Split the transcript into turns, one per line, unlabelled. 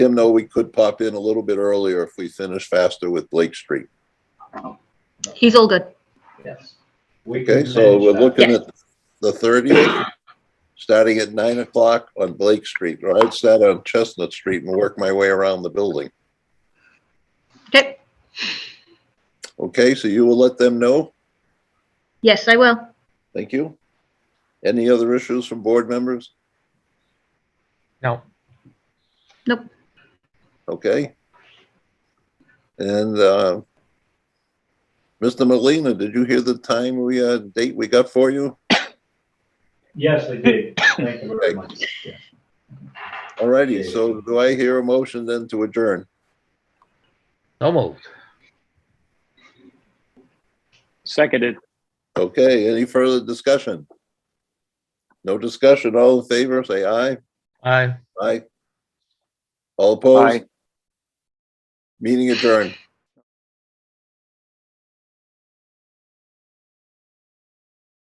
him know we could pop in a little bit earlier if we finish faster with Blake Street.
He's all good.
Yes. We can
Okay, so
manage
we're
that.
looking at the thirtieth, starting at nine o'clock on Blake Street, or I'd start on Chestnut Street and work my way around the building.
Okay.
Okay, so you will let them know?
Yes, I will.
Thank you. Any other issues from board members?
No,
Nope.
Okay. And, uh, Mr. Molina, did you hear the time we, uh, date we got for you?
Yes, I did. Thank you very much. Yeah.
Alrighty, so do I hear a motion then to adjourn?
no moved.
Seconded.
Okay, any further discussion? No discussion, all in favor, say aye.
Aye.
Aye. All
Aye.
opposed? Meeting adjourned.